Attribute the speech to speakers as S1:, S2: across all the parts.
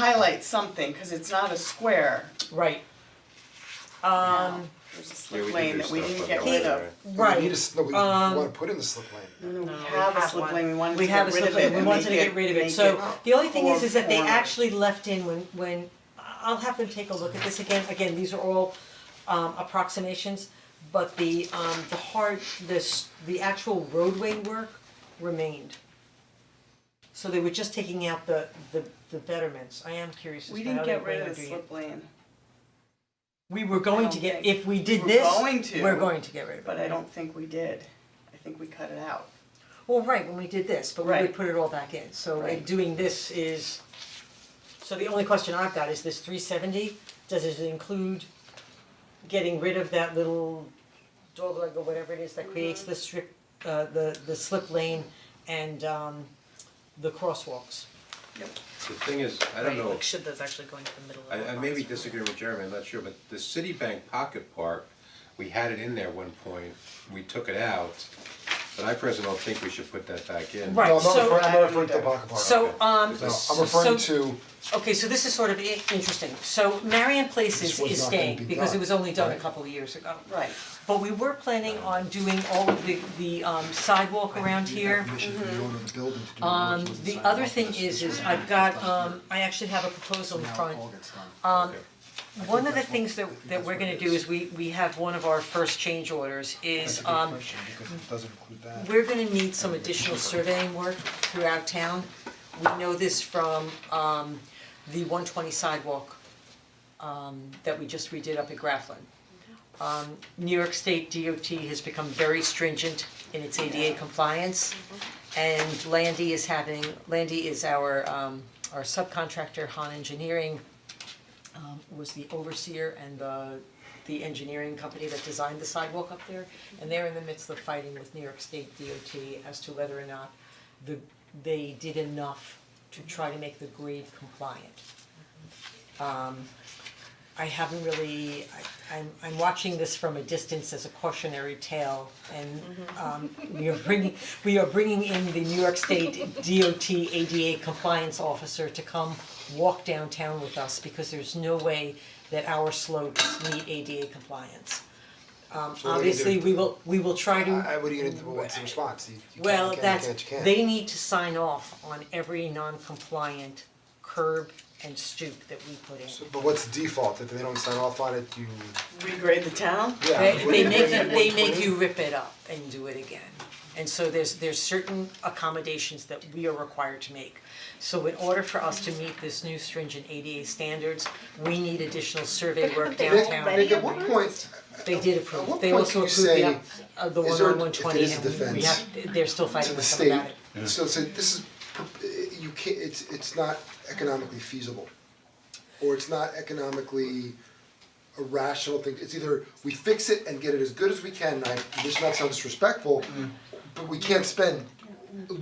S1: highlight something, cause it's not a square.
S2: Right. Um,
S1: There's a
S3: Yeah, we
S1: slip
S3: do
S1: lane
S3: do
S1: that we
S3: stuff
S1: didn't
S3: like
S1: get
S3: that,
S1: rid of.
S2: right.
S4: We need a, s- no, we
S2: Um,
S4: wanna put in the slip lane.
S1: No, no,
S2: No,
S1: we
S2: we
S1: have a
S2: have
S1: slip
S2: one.
S1: lane, we wanted to
S2: We have
S1: get
S2: a
S1: rid
S2: slip
S1: of it
S2: lane, we
S1: and
S2: wanted to
S1: make
S2: get rid of it,
S1: make
S2: so the only thing is,
S1: more
S2: is that they
S1: formal.
S2: actually left in when, when, I'll have them take a look at this again, again, these are all um approximations, but the um the hard, this, the actual roadway work remained. So they were just taking out the the the betterments, I am curious as
S1: We
S2: to how
S1: didn't
S2: they
S1: get rid
S2: plan
S1: of
S2: on
S1: the
S2: doing it.
S1: slip lane,
S2: We were going to
S1: don't
S2: get,
S1: think-
S2: if we did
S1: We're
S2: this,
S1: going to.
S2: we're going to get rid of it.
S1: but I don't think we did. I think we cut it out.
S2: Well, right, when we did this, but we
S1: Right.
S2: would put it all back in, so like,
S1: Right.
S2: doing this is. So the only question I've got is this three seventy, does it include getting rid of that little dog leg or whatever it is that creates
S5: Mm-hmm.
S2: the strip, uh, the the slip lane and um the crosswalks?
S3: The thing is, I don't know,
S5: Like, should those actually go into the middle of
S3: I
S5: the
S3: I
S5: box?
S3: maybe disagree with Jeremy, I'm not sure, but the Citibank Pocket Park, we had it in there one point, we took it out. But I personally don't think we should put that back in.
S2: Right,
S4: No, I'm not
S2: so-
S4: referring, I'm not referring to the Baca Park.
S2: So um,
S4: No,
S3: Because
S4: I'm referring
S2: so-
S4: to,
S2: okay, so this is sort of i- interesting, so Marion Places
S4: This was
S2: is
S4: not gonna be
S2: staying, because it
S4: done,
S2: was only done a
S4: right?
S2: couple of years ago.
S1: Right.
S2: But we were planning on doing all of the the um sidewalk around here. mm-hmm.
S4: permission from the owner of the building to do the
S2: Um
S4: roads with
S2: the
S4: sidewalk.
S2: other thing
S4: That's-
S2: is, is
S4: that's-
S2: I've got um, I actually have a proposal in
S4: Now
S2: front.
S4: all gets done.
S2: Um one of the
S4: that's what-
S2: things
S4: I
S2: that
S4: think
S2: that
S4: that's
S2: we're
S4: what
S2: gonna
S4: it
S2: do
S4: is.
S2: is we we have one of our first change orders
S4: That's a
S2: is
S4: good
S2: um
S4: question, because it doesn't include that.
S2: we're gonna need some additional surveying work throughout town. We know this from um the one twenty sidewalk um that we just redid up at Grafflin. Um New York State DOT has become very stringent in its ADA compliance. And Landy is having, Landy is our um our subcontractor, Han Engineering, um was the overseer and the the engineering company that designed the sidewalk up there. And they're in the midst of fighting with New York State DOT as to whether or not the they did enough to try to make the grade compliant. Um I haven't really, I I'm I'm watching this from a distance as a cautionary tale and um we are bringing, we are bringing in the New York State DOT ADA compliance officer to come walk downtown with us because there's no way that our slopes meet ADA compliance. Um
S4: So what are you
S2: obviously,
S4: doing?
S2: we will, we will try to
S4: I, I, what are you gonna, do? what's the response? You, you can't,
S2: well,
S4: you can't,
S2: that's,
S4: you can't, you can't.
S2: they need to sign off on every non-compliant curb and stoop that we put in.
S4: So, but what's the default, if they don't sign off on it, you,
S1: Regrade the town?
S4: yeah.
S2: They
S4: what do
S2: they
S4: you
S2: make
S4: bring
S2: you,
S4: in
S2: they make
S4: 120?
S2: you rip it up and do it again. And so there's there's certain accommodations that we are required to make. So in order for us to meet this new stringent ADA standards, we need additional survey work
S4: Nick,
S2: downtown.
S4: Nick, at what point,
S2: They did
S4: At
S2: approve,
S4: what
S2: they
S4: point
S2: also
S4: can you
S2: approved the,
S4: say,
S2: up- uh, the
S4: is
S2: one on
S4: there- if
S2: one
S4: there
S2: twenty
S4: is a
S2: and we- we
S4: defense
S2: have, they're still
S4: to
S2: fighting
S4: the
S2: with them about it.
S4: state, so it's like, this is, you can't, it's, it's not economically feasible. Or it's not economically a rational thing, it's either we fix it and get it as good as we can, and I, this not sound disrespectful, but we can't spend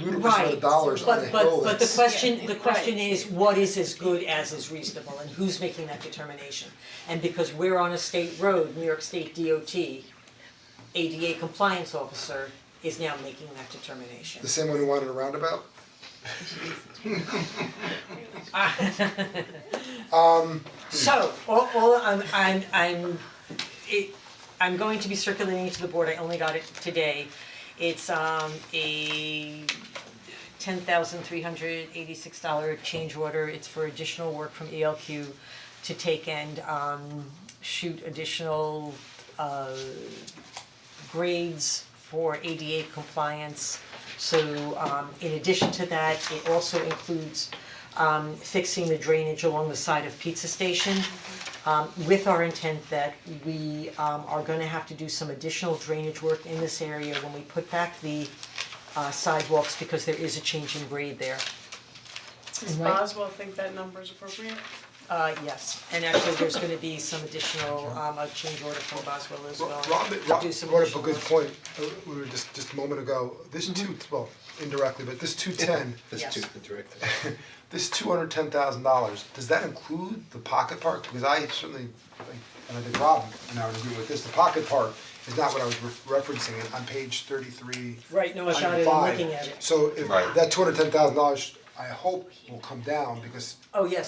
S4: ludicrous amount of dollars on a
S2: Mm. Right, but
S4: hill
S2: but but the
S4: that's-
S2: question, the question is, what is as good as is reasonable and who's making that determination? And because we're on a state road, New York State DOT, ADA compliance officer is now making that determination.
S4: The same one who wanted a roundabout?
S2: So, all all I'm I'm I'm it I'm going to be circulating it to the board, I only got it today. It's um a ten thousand three hundred eighty six dollar change order, it's for additional work from ELQ to take and um shoot additional uh grades for ADA compliance. So um in addition to that, it also includes um fixing the drainage along the side of Pizza Station. Um with our intent that we um are gonna have to do some additional drainage work in this area when we put back the uh sidewalks because there is a change in grade there.
S1: Does Boswell think that number is appropriate?
S2: Uh yes, and actually there's gonna be some additional um a change order from Boswell as well.
S4: Rob,
S2: to
S4: Rob
S2: do some
S4: brought up a
S2: additional
S4: good
S2: work.
S4: point, uh, we were just, just a moment ago, this
S2: Mm-hmm.
S4: two, well, indirectly, but this two ten,
S3: This
S2: Yes.
S3: too, the director.
S4: this two hundred ten thousand dollars, does that include the pocket park? Because I certainly, like, and I think Rob and I would agree with this, the pocket park is not what I was re- referencing, and on page thirty-three,
S2: Right, no, I got
S4: item
S2: it, I'm
S4: five.
S2: looking at it.
S4: So if, that two hundred ten thousand dollars, I hope will come down, because
S2: Oh, yes,